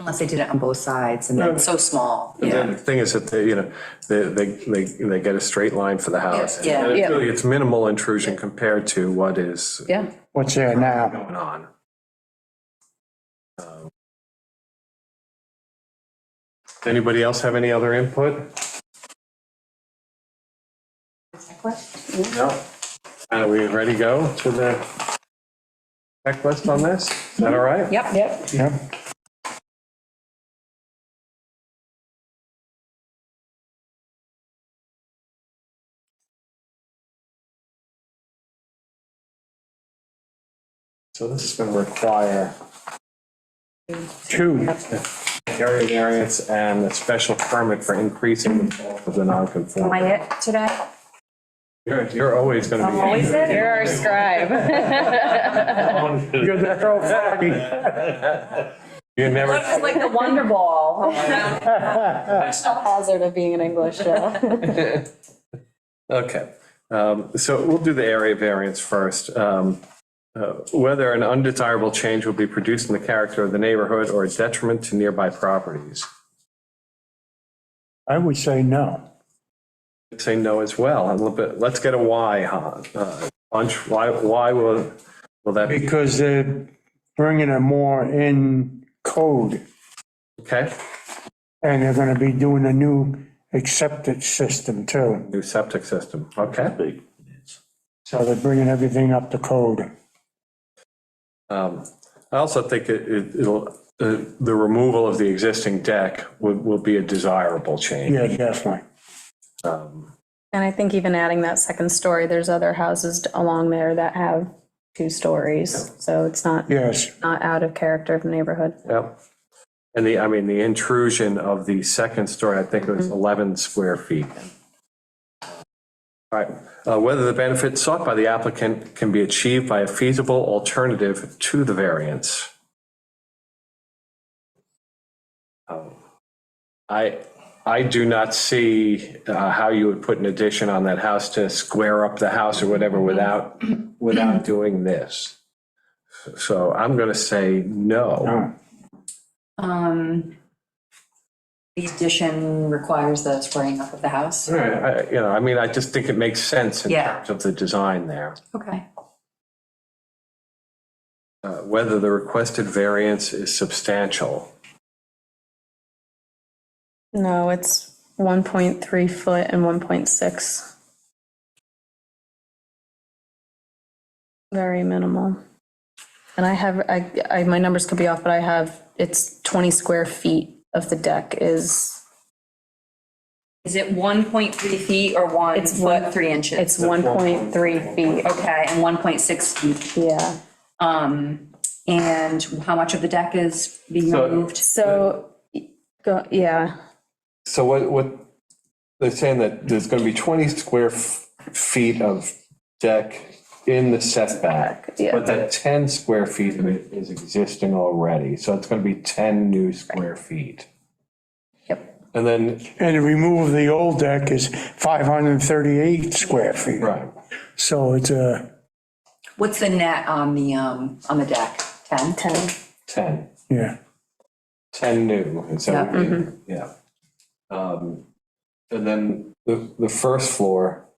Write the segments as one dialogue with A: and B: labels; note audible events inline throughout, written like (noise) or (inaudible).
A: Unless they did it on both sides and then so small,
B: And then
A: yeah.
B: the thing is that they, you know, they, they, they they get a straight line for the house.
A: Yeah.
B: And it's
C: Yeah.
B: really- It's minimal intrusion compared to what is
C: Yeah,
D: What's there now?
B: going on. Um, Anybody else have any other input? No. Are Uh, we ready to go to the checklist on this? Is that all right?
A: Yep.
C: yep.
D: Yep.
B: So this is going to require
D: Two.
B: area variance and a special permit for increasing the bulk of the
A: Am
B: non-conformity.
A: I it today?
B: You're, you're always going to be.
C: You're our scribe.
D: You're the pro foggy.
B: (laughs) You never,
C: It's like the Wonder (laughs) Ball. Hazard of being an English.
B: okay. Um, So we'll do the area variance first. Um, uh, Whether an undesirable change will be produced in the character of the neighborhood or a detriment to nearby properties.
D: I would say no.
B: I'd Say no as well, a little bit, let's get a why, huh? Uh, Bunch, why, why will, will that be,
D: Because they're bringing it more in code
B: okay?
D: and they're gonna be doing a new acceptance system too.
B: New septic system, okay?
D: So they're bringing everything up to code.
B: Um, I also think it- it- it'll, uh, the removal of the existing deck will, will be a desirable change.
D: Yeah, definitely.
C: And I think even adding that second story, there's other houses along there that have two stories. So it's not,
D: Yes.
C: not out of character of the neighborhood.
B: Yep. And the, I mean, the intrusion of the second story, I think it was 11 square feet. All right, Uh, whether the benefit sought by the applicant can be achieved by a feasible alternative to the variance. Um, I, I do not see uh, how you would put an addition on that house to square up the house or whatever without, without doing this. So I'm going to say
D: Uh-huh.
B: no.
A: Um, the addition requires the squaring up of the house.
B: All right, I- you know, I mean, I just think it makes sense in
A: Yeah.
B: terms of the design there.
A: Okay.
B: Uh, Whether the requested variance is substantial.
C: No, it's 1.3 foot and 1.6. Very minimal. And I have, I, I, my numbers could be off, but I have, it's 20 square feet of the deck is,
A: Is it 1.3 feet or one
C: It's one-
A: foot, three inches?
C: it's 1.3 feet.
A: Okay, and 1.6 feet.
C: Yeah,
A: Um, and how much of the deck is being
B: So-
A: removed?
C: so, go, yeah,
B: So what, what, they're saying that there's going to be 20 square f- feet of deck in the setback.
C: yeah.
B: But that 10 square feet of it is existing already, so it's going to be 10 new square feet.
C: yep,
B: And then,
D: And to remove the old deck is 538 square feet.
B: right,
D: So it's a,
A: What's the net on the, um, on the deck? 10?
C: 10.
B: 10.
D: yeah.
B: 10 new, and so,
A: Yeah.
B: yeah. Um, And then the, the first floor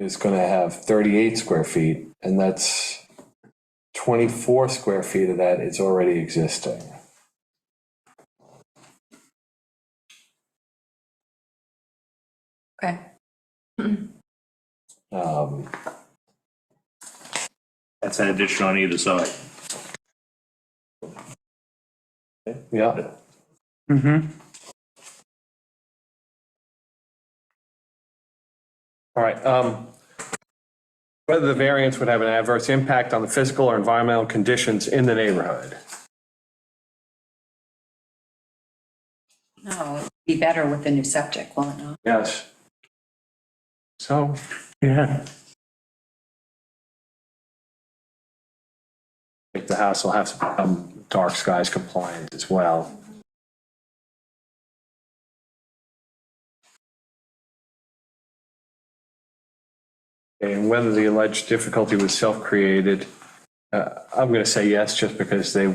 B: is going to have 38 square feet, and that's 24 square feet of that is already existing.
A: Okay.
B: Um,
E: That's an addition on either side.
B: Yeah,
D: Mm-hmm.
B: all right. um, Whether the variance would have an adverse impact on the physical or environmental conditions in the neighborhood.
A: No, it'd be better with the new septic, will it not?
B: Yes. So,
D: Yeah.
B: I think the house will have to become dark skies compliant as well. And whether the alleged difficulty was self-created, uh, I'm going to say yes, just because they